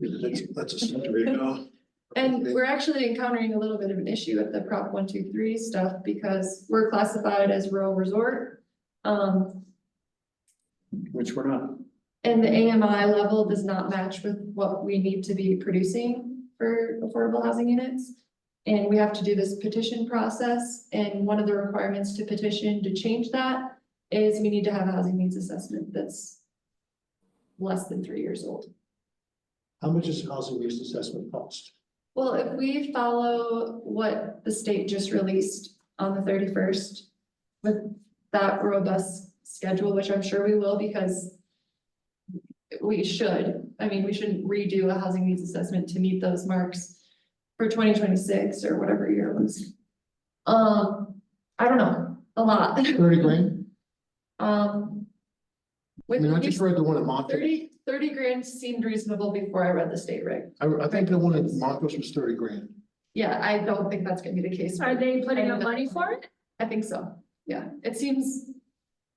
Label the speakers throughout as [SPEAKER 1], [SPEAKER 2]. [SPEAKER 1] That's, that's a century ago.
[SPEAKER 2] And we're actually encountering a little bit of an issue with the Prop one, two, three stuff because we're classified as rural resort. Um,
[SPEAKER 1] Which we're not.
[SPEAKER 2] and the AMI level does not match with what we need to be producing for affordable housing units. And we have to do this petition process, and one of the requirements to petition to change that is we need to have a housing needs assessment that's less than three years old.
[SPEAKER 1] How much is housing use assessment cost?
[SPEAKER 2] Well, if we follow what the state just released on the thirty-first with that robust schedule, which I'm sure we will because we should, I mean, we shouldn't redo a housing needs assessment to meet those marks for twenty twenty-six or whatever year it was. Um, I don't know, a lot,
[SPEAKER 1] Thirty grand?
[SPEAKER 2] um.
[SPEAKER 1] I
[SPEAKER 2] With
[SPEAKER 1] mean, I just read the one at Montrose.
[SPEAKER 2] 30 30 grand seemed reasonable before I read the state reg.
[SPEAKER 1] I, I think the one at Montrose was thirty grand.
[SPEAKER 2] Yeah, I don't think that's gonna be the case.
[SPEAKER 3] Are they putting up
[SPEAKER 2] And-
[SPEAKER 3] money for it?
[SPEAKER 2] I think so, yeah, it seems,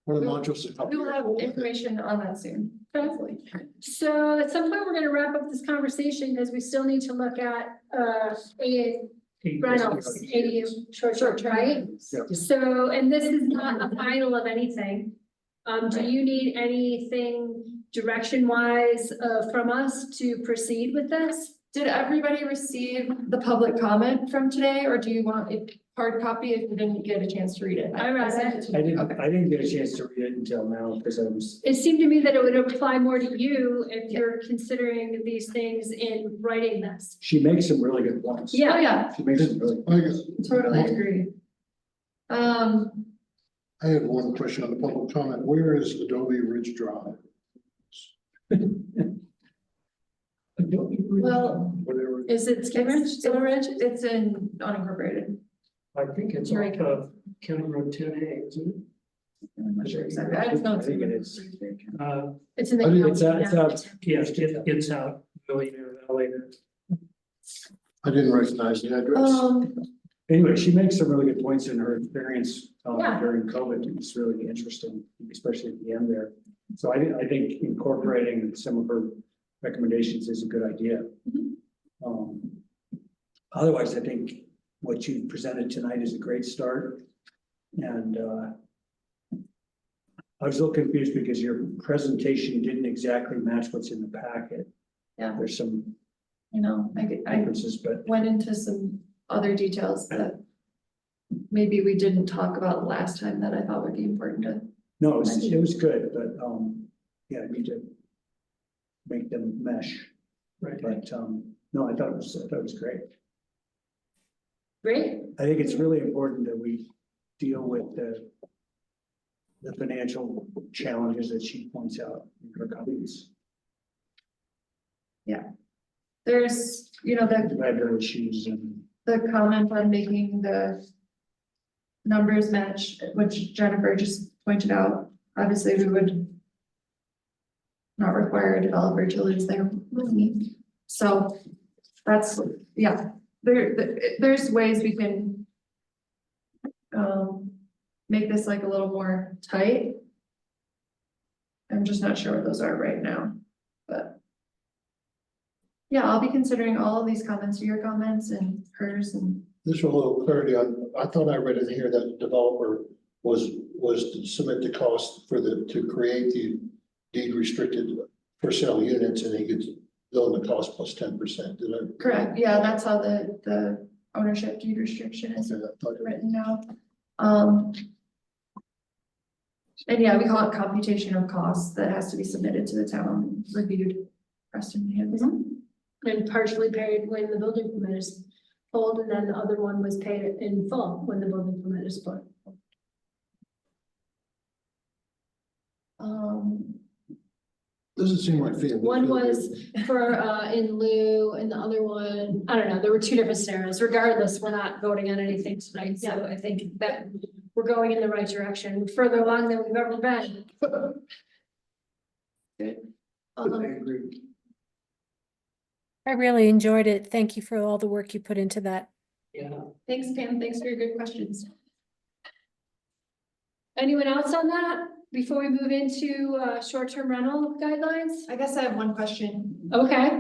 [SPEAKER 1] One at
[SPEAKER 2] We will-
[SPEAKER 1] Montrose. is a couple
[SPEAKER 2] we will
[SPEAKER 1] years
[SPEAKER 2] have
[SPEAKER 1] old, I think.
[SPEAKER 2] information on that soon, hopefully.
[SPEAKER 3] So at some point, we're gonna wrap up this conversation because we still need to look at uh ADA rentals, ADU short short, right?
[SPEAKER 1] Yep.
[SPEAKER 3] So, and this is not a final of anything. Um, do you need anything direction wise uh from us to proceed with this?
[SPEAKER 2] Did everybody receive the public comment from today, or do you want a hard copy if you didn't get a chance to read it?
[SPEAKER 3] I read it.
[SPEAKER 2] to
[SPEAKER 4] I
[SPEAKER 2] you.
[SPEAKER 4] didn't,
[SPEAKER 2] Okay.
[SPEAKER 4] I didn't get a chance to read it until now because I was,
[SPEAKER 3] It seemed to me that it would apply more to you if you're considering these things in writing this.
[SPEAKER 4] she makes some really good points.
[SPEAKER 3] Yeah.
[SPEAKER 2] Oh, yeah,
[SPEAKER 4] She makes some really.
[SPEAKER 1] I guess,
[SPEAKER 2] totally agree. Um,
[SPEAKER 1] I had one question on the public comment. Where is Adobe Ridge Drive?
[SPEAKER 2] well,
[SPEAKER 1] Whatever. it-
[SPEAKER 2] is it Skin Ridge, Skin Ridge? It's in unincorporated.
[SPEAKER 4] I think it's
[SPEAKER 2] Here
[SPEAKER 4] off
[SPEAKER 2] we
[SPEAKER 4] of County Road ten A, isn't
[SPEAKER 2] I'm not sure exactly. I just know it's.
[SPEAKER 4] I think it
[SPEAKER 2] in-
[SPEAKER 4] is. it? Uh,
[SPEAKER 3] It's in the.
[SPEAKER 1] I think
[SPEAKER 4] it's out, it's
[SPEAKER 3] county.
[SPEAKER 4] out, yes, it- it's out Millionaire Valley.
[SPEAKER 1] I didn't recognize the address.
[SPEAKER 2] Um,
[SPEAKER 4] Anyway, she makes some really good points in her experience um,
[SPEAKER 3] Yeah.
[SPEAKER 4] during COVID. It's really interesting, especially at the end there. So I, I think incorporating some of her recommendations is a good idea.
[SPEAKER 2] Mhm.
[SPEAKER 4] Um, Otherwise, I think what you presented tonight is a great start. And uh, I was a little confused because your presentation didn't exactly match what's in the packet.
[SPEAKER 2] Yeah.
[SPEAKER 4] There's some
[SPEAKER 2] you know, I could, I
[SPEAKER 4] differences, but
[SPEAKER 2] went into some other details that maybe we didn't talk about last time that I thought would be important to.
[SPEAKER 4] No, it was, it was good, but, um, yeah, I need to make them mesh,
[SPEAKER 5] Right.
[SPEAKER 4] but, um, no, I thought it was, I thought it was great.
[SPEAKER 3] Great,
[SPEAKER 4] I think it's really important that we deal with the the financial challenges that she points out in her comments,
[SPEAKER 2] There's, you know, the,
[SPEAKER 4] library issues and,
[SPEAKER 2] the comment on making the numbers match, which Jennifer just pointed out, obviously we would not require a developer to lose their money. So that's, yeah, there, there's ways we can um, make this like a little more tight. I'm just not sure what those are right now, but. Yeah, I'll be considering all of these comments, your comments and hers and,
[SPEAKER 6] Just for a little clarity, I, I thought I read in here that the developer was, was to submit the cost for the, to create the deed restricted for sale units and he gets billed the cost plus ten percent, did I?
[SPEAKER 2] correct, yeah, that's how the, the ownership deed restriction is
[SPEAKER 6] Okay, I thought-
[SPEAKER 2] written now. Um. And yeah, we call it computation of costs that has to be submitted to the town, reviewed, Preston handles.
[SPEAKER 3] and partially paid when the building permit is pulled, and then the other one was paid in full when the building permit is pulled.
[SPEAKER 2] Um,
[SPEAKER 6] Doesn't seem like. fair.
[SPEAKER 3] One was for uh in lieu, and the other one, I don't know, there were two different scenarios, regardless, we're not voting on anything tonight, so I think that we're going in the right direction, We're further along than we've ever been.
[SPEAKER 2] um,
[SPEAKER 7] I really enjoyed it. Thank you for all the work you put into that.
[SPEAKER 5] Yeah.
[SPEAKER 2] thanks Pam, thanks for your good questions.
[SPEAKER 3] Anyone else on that, before we move into uh short-term rental guidelines?
[SPEAKER 2] I guess I have one question.
[SPEAKER 3] Okay.